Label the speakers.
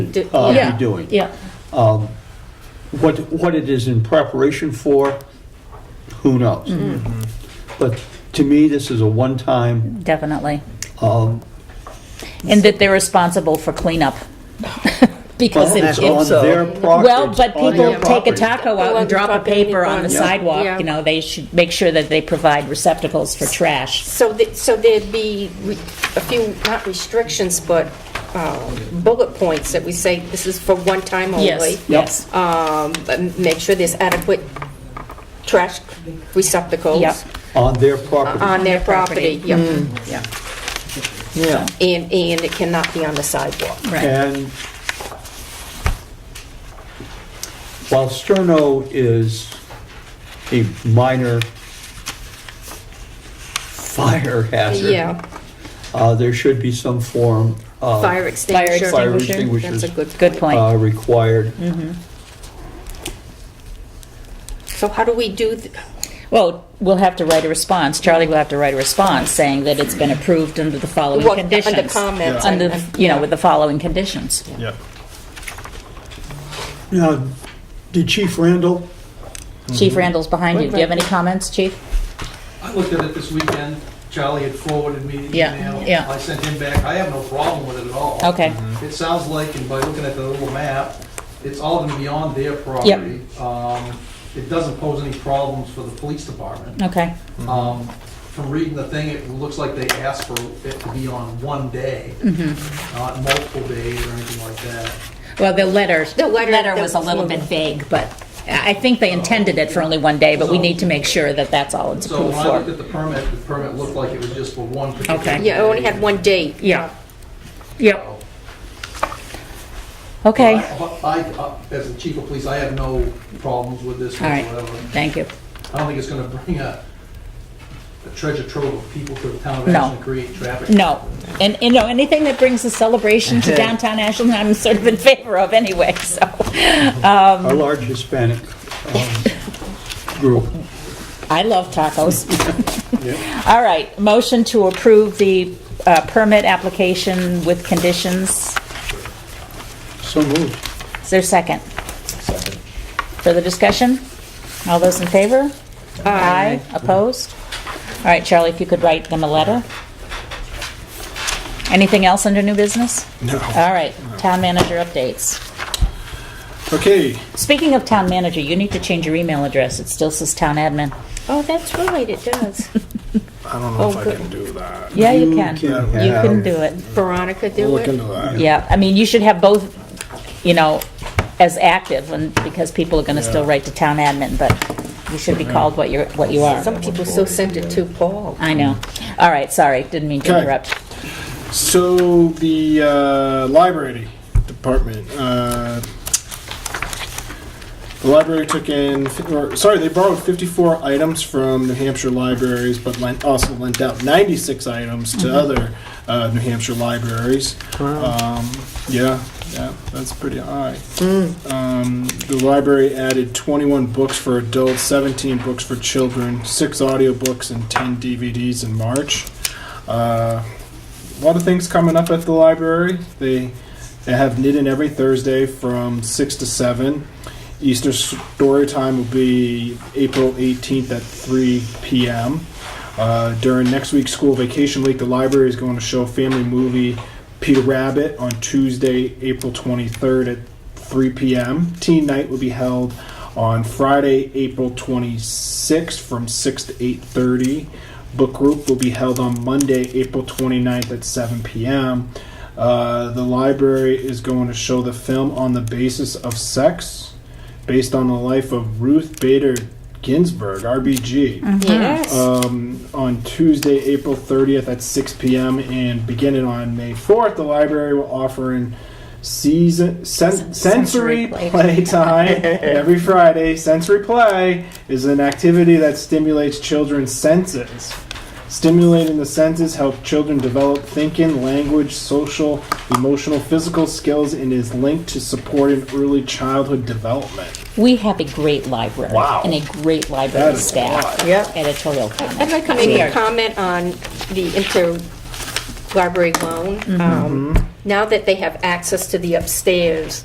Speaker 1: Do-
Speaker 2: uh,
Speaker 1: yeah,
Speaker 2: be doing.
Speaker 1: Yeah,
Speaker 2: What, what it is in preparation for, who knows?
Speaker 1: Mm-hmm.
Speaker 2: But to me, this is a one-time,
Speaker 1: definitely.
Speaker 2: um,
Speaker 1: And that they're responsible for cleanup. Because
Speaker 2: well,
Speaker 1: it,
Speaker 2: it's on
Speaker 1: it-
Speaker 3: so.
Speaker 2: their property.
Speaker 1: well,
Speaker 2: it's
Speaker 1: but
Speaker 2: on their
Speaker 1: people take a
Speaker 2: property.
Speaker 1: taco out and drop a paper on the
Speaker 4: Yeah.
Speaker 1: sidewalk,
Speaker 4: Yeah.
Speaker 1: you know, they should make sure that they provide receptacles for trash.
Speaker 4: So, th- so there'd be re- a few, not restrictions, but um, bullet points that we say, this is for one time only.
Speaker 1: Yes, yes.
Speaker 4: Um, But make sure there's adequate trash
Speaker 1: Yep. Mm.
Speaker 4: receptacles
Speaker 2: On their
Speaker 1: Uh,
Speaker 2: property.
Speaker 4: on their property. Yep.
Speaker 1: Yeah,
Speaker 3: Yeah.
Speaker 4: And, and it cannot be on the sidewalk.
Speaker 1: right.
Speaker 2: And while Sterno is a minor fire hazard.
Speaker 4: Yeah,
Speaker 2: uh, There should be some form of.
Speaker 4: fire extinguisher.
Speaker 2: Fire extinguishers.
Speaker 4: That's a good.
Speaker 1: Good point.
Speaker 2: uh, Required.
Speaker 4: So how do we do, th-
Speaker 1: Well, we'll have to write a response, Charlie will have to write a response saying that it's been approved under the following
Speaker 4: Well, under
Speaker 1: conditions.
Speaker 4: comments,
Speaker 1: Under,
Speaker 4: I- I-
Speaker 1: you know, with the following conditions.
Speaker 3: Yeah.
Speaker 2: Now, did Uh, Chief Randall
Speaker 1: Chief Randall's behind you, do you have any comments, chief?
Speaker 5: I looked at it this weekend. Charlie had forwarded me the
Speaker 1: Yeah,
Speaker 5: email.
Speaker 1: yeah.
Speaker 5: I sent him back. I have no problem with it at all.
Speaker 1: Okay,
Speaker 5: It sounds like, and by looking at the little map, it's all gonna be on their property. Um, it doesn't pose any problems for the police department.
Speaker 1: okay,
Speaker 5: Um, from reading the thing, it looks like they asked for it to be on one day,
Speaker 1: Mm-hmm.
Speaker 5: not multiple days or anything like that.
Speaker 1: well, the letter,
Speaker 4: The letter-
Speaker 1: letter was a little bit vague, but I I think they intended it for only one day, but we need to make sure that that's all it's
Speaker 5: So
Speaker 1: approved
Speaker 5: when I looked
Speaker 1: for.
Speaker 5: at the permit, the permit looked like it was just for one particular
Speaker 1: Okay.
Speaker 4: yeah, I only
Speaker 5: day.
Speaker 4: had one date.
Speaker 1: Yeah, yep, okay,
Speaker 5: But I, I- as the chief of police, I have no problems with this
Speaker 1: all right,
Speaker 5: whatsoever.
Speaker 1: thank you.
Speaker 5: I don't think it's gonna bring a a treasure trove of people to the town of
Speaker 1: No.
Speaker 5: Ashland and create traffic.
Speaker 1: No, and, you know, anything that brings a celebration to downtown Ashland, I'm sort of in favor of anyway, so.
Speaker 2: Our large Hispanic um, group.
Speaker 1: I love tacos. All right, motion to approve the uh, permit application with conditions.
Speaker 2: So moved.
Speaker 1: Is there a second? Further discussion? All those in favor? Aye. Opposed? All right, Charlie, if you could write them a letter. Anything else under new business? No. All right, town manager updates.
Speaker 6: Okay,
Speaker 1: Speaking of town manager, you need to change your email address. It still says town admin.
Speaker 4: Oh, that's right, it does.
Speaker 6: I don't know
Speaker 4: Oh,
Speaker 6: if I
Speaker 4: good.
Speaker 6: can do that.
Speaker 1: Yeah, you
Speaker 2: You
Speaker 1: can.
Speaker 2: can
Speaker 1: You
Speaker 2: have-
Speaker 1: can do it.
Speaker 4: Veronica do
Speaker 6: We'll look into
Speaker 4: it?
Speaker 6: that.
Speaker 1: Yeah, I mean, you should have both, you know, as active, and, because people are gonna still write to town admin, but you should be called what you're, what you are.
Speaker 4: Some people still send it to Paul.
Speaker 1: I know.
Speaker 6: Mm.
Speaker 1: All right, sorry, didn't mean to
Speaker 6: Okay.
Speaker 1: interrupt.
Speaker 6: So the uh, library department, uh, the library took in, or sorry, they borrowed 54 items from New Hampshire libraries, but lent, also lent out 96 items to other uh, New Hampshire libraries. Um, yeah, yeah, that's pretty high. Um, the library added 21 books for adults, 17 books for children, six audiobooks, and 10 DVDs in March. Uh, a lot of things coming up at the library. They they have knit in every Thursday from six to seven. Easter story time will be April 18th at 3 p.m. Uh, during next week's school vacation week, the library is going to show family movie Peter Rabbit on Tuesday, April 23rd at 3 p.m. Teen night will be held on Friday, April 26th from 6 to 8:30. Book group will be held on Monday, April 29th at 7 p.m. Uh, the library is going to show the film on the basis of sex, based on the life of Ruth Bader Ginsburg, RBG
Speaker 4: Yes.
Speaker 6: um, on Tuesday, April 30th at 6 p.m. and beginning on May 4th, the library will offer an season sen- sensory,
Speaker 1: sensory play.
Speaker 6: play time every Friday. Sensory play is an activity that stimulates children's senses. Stimulating the senses help children develop thinking, language, social, emotional, physical skills, and is linked to supporting early childhood development.
Speaker 1: We have a great library.
Speaker 6: Wow.
Speaker 1: And a great library
Speaker 6: That is a
Speaker 1: staff.
Speaker 6: lot.
Speaker 3: Yep.
Speaker 1: Editorial comment.
Speaker 4: I'd like to make a comment on the interlibrary loan. Um, now that they have access to the upstairs,